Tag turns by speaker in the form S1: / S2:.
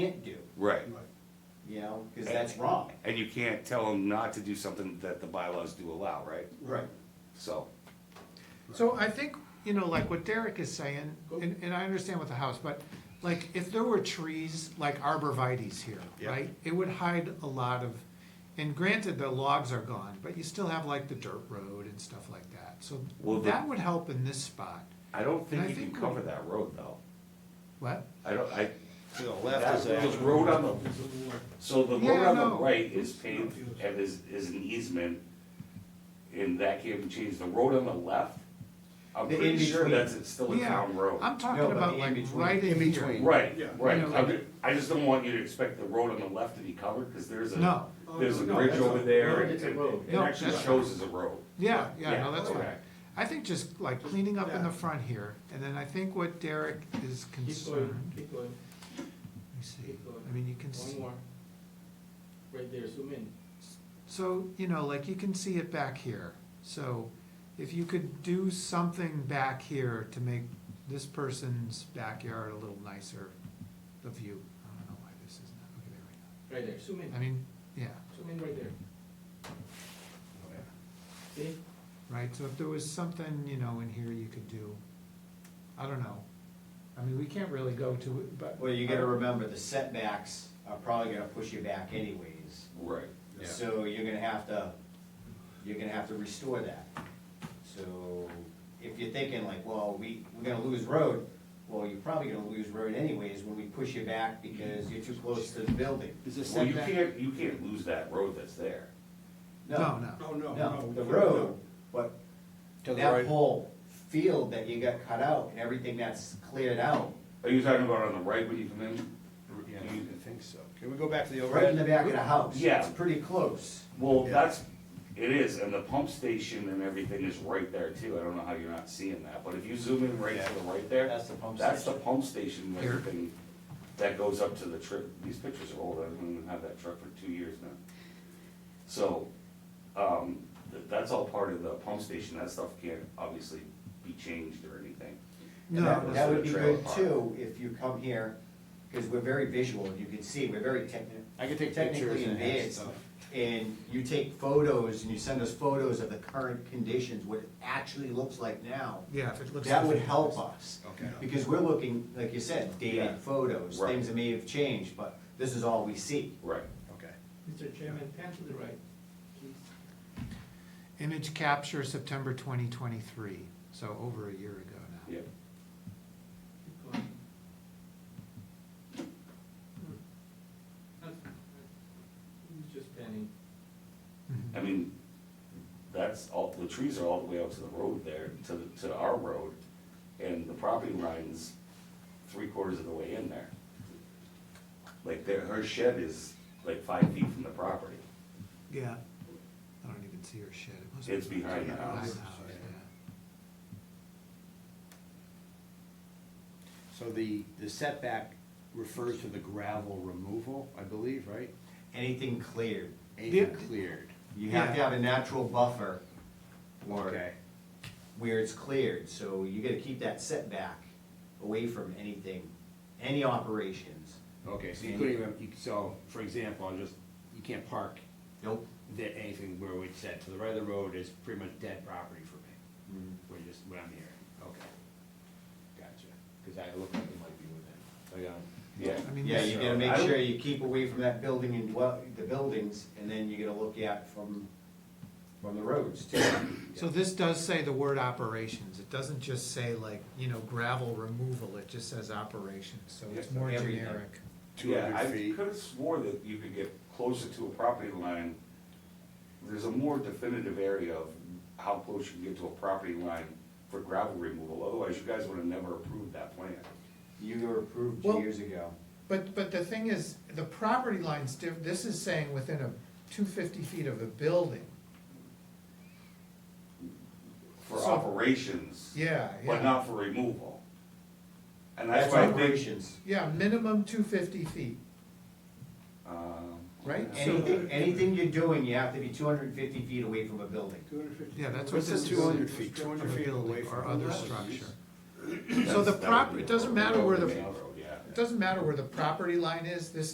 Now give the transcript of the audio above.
S1: Right.
S2: you know, because that's wrong.
S1: And you can't tell them not to do something that the bylaws do allow, right?
S2: Right.
S1: So,
S3: So I think, you know, like what Derek is saying, and, and I understand with the house, but like if there were trees like arborvitae's here,
S1: Yeah.
S3: right? It would hide a lot of, and granted, the logs are gone, but you still have like the dirt road and stuff like that. So
S1: Well, the-
S3: that would help in this spot.
S1: I don't
S3: And
S1: think
S3: I
S1: you can
S3: think we-
S1: cover that road though.
S3: What?
S1: I don't, I,
S4: To the left
S1: that,
S4: is that.
S1: there's road on the, so the road
S3: Yeah,
S1: on the
S3: no.
S1: right is paved and is, is an easement. And that can't be changed. The road on the left, I'm
S2: The
S1: pretty sure
S2: in-between.
S1: that's, it's still a
S3: Yeah,
S1: town road.
S3: I'm
S2: No,
S3: talking
S2: but
S3: about
S2: in
S3: like
S2: between.
S3: right in
S4: In
S3: here.
S4: between.
S1: Right,
S5: Yeah.
S1: right.
S3: You know,
S1: I'm ju- I just don't want you to expect the road on the left to be covered, cause there's a,
S3: No,
S1: there's a
S5: No,
S1: bridge
S5: that's a-
S1: over there.
S2: no,
S1: and
S2: it's a
S1: and-
S2: road.
S1: It
S3: No,
S1: actually
S3: that's-
S1: shows as a road.
S3: yeah, yeah, no,
S1: Yeah,
S3: that's fine.
S1: okay.
S3: I think just like cleaning up in
S5: Yeah.
S3: the front here, and then I think what Derek is
S5: Keep going,
S3: concerned,
S5: keep going,
S3: let me see,
S5: keep going.
S3: I mean, you can see.
S5: One more. Right there, zoom in.
S3: So, you know, like you can see it back here, so if you could do something back here to make this person's backyard a little nicer, the view, I don't know why this is not, okay, there
S5: Right there, zoom
S3: we
S5: in.
S3: go. I mean, yeah,
S5: Zoom in right there. See?
S3: right, so if there was something, you know, in here you could do, I don't know. I mean, we can't really go to, it, but.
S2: Well, you gotta remember, the setbacks are probably gonna push you back anyways.
S1: Right.
S2: So you're gonna have to, you're gonna have to restore that. So if you're thinking like, well, we, we're gonna lose road, well, you're probably gonna lose road anyways when we push you back because you're too close to the building.
S4: Is this
S1: Well, you
S4: setback?
S1: can't, you can't lose that road that's there.
S3: No, no.
S5: Oh, no,
S2: No, the road, but
S4: To the
S2: that
S4: right.
S2: whole field that you got cut out and everything that's cleared out,
S1: Are you talking about on the right when you come in?
S4: Yeah,
S1: You-
S4: I think so. Can we go back to the old?
S2: right in the back of the house.
S1: Yeah.
S2: It's pretty close.
S1: Well,
S4: Yeah.
S1: that's, it is, and the pump station and everything is right there too, I don't know how you're not seeing that, but if you zoom in right to the right there,
S2: That's the pump
S1: that's the
S2: station.
S1: pump station and
S3: Here.
S1: everything that goes up to the truck, these pictures are old, I haven't even had that truck for two years now. So, um, th- that's all part of the pump station, that stuff can't obviously be changed or anything.
S2: And
S3: No,
S2: that,
S1: was
S2: that
S1: the
S2: would be
S1: trailer
S2: good
S1: park.
S2: too, if you come here, because we're very visual, you can see, we're very technical.
S4: I can take
S2: technically
S4: pictures and add
S2: advanced.
S4: stuff.
S2: And you take photos and you send us photos of the current conditions, what it actually looks like now.
S3: Yeah, if it looks.
S2: That would help us.
S4: Okay.
S2: Because we're looking, like you said,
S1: Yeah.
S2: dated photos,
S1: Right.
S2: things that may have changed, but this is all we see.
S1: Right.
S4: Okay.
S5: Mr. Chairman, pan to the right, please.
S3: Image capture September twenty twenty-three, so over a year ago now.
S1: Yeah,
S5: Keep going. Not- He's just panning.
S3: Mhm.
S1: I mean, that's all, the trees are all the way up to the road there, to, the- to our road, and the property line's three quarters of the way in there. Like, there, her shed is like five feet from the property.
S3: Yeah. I don't even see her shed. It must
S1: It's
S3: be
S1: behind the house.
S3: yeah.
S4: So the, the setback refers to the gravel removal, I believe, right?
S2: Anything cleared,
S4: Anything
S3: Yeah.
S4: cleared.
S2: you have to
S3: Yeah.
S2: have a natural buffer
S4: Okay.
S2: or where it's cleared, so you gotta keep that setback away from anything, any operations.
S4: Okay, so you couldn't even, you- so, for example, I'll just, you can't park
S2: Nope.
S4: that, anything where we said, to the right of the road is pretty much dead property for me.
S3: Mm-hmm.
S4: We're just, what I'm hearing, okay. Gotcha, because I looked like it might be within, so, yeah.
S1: Yeah,
S3: I mean,
S2: Yeah, you
S3: this,
S2: gotta make
S1: I would-
S2: sure you keep away from that building and dwell, the buildings, and then you gotta look at from, from the roads too.
S3: so this does say the word operations. It doesn't just say like, you know, gravel removal. It just says operations, so it's
S1: Yeah,
S3: more
S2: everything.
S3: generic.
S1: yeah, I
S4: 200 feet.
S1: could've swore that you could get closer to a property line. There's a more definitive area of how close you can get to a property line for gravel removal, otherwise you guys would've never approved that plan.
S2: You were approved
S3: Well-
S2: years ago.
S3: But, but the thing is, the property line's diff, this is saying within a, two fifty feet of a building.
S1: For
S3: So-
S1: operations.
S3: Yeah,
S1: but
S3: yeah.
S1: not for removal. And that's
S2: That's
S1: why I think,
S2: operations.
S3: Yeah, minimum two fifty feet,
S1: um,
S3: right? So-
S2: Anything, anything you're doing, you have to be two hundred and fifty feet away from a building.
S5: Two hundred fifty.
S3: Yeah, that's what
S4: What's
S3: this
S4: this
S3: is.
S4: two hundred feet, two
S3: From
S4: hundred
S3: a
S4: feet
S3: building
S4: away
S3: Or
S4: from?
S3: other
S1: That's-
S3: structure.
S1: that's-
S3: the
S1: that would
S3: prop-
S1: be
S3: it
S1: a
S3: doesn't
S1: road,
S3: matter where the-
S1: main road, yeah.
S3: It doesn't matter where the property line is, this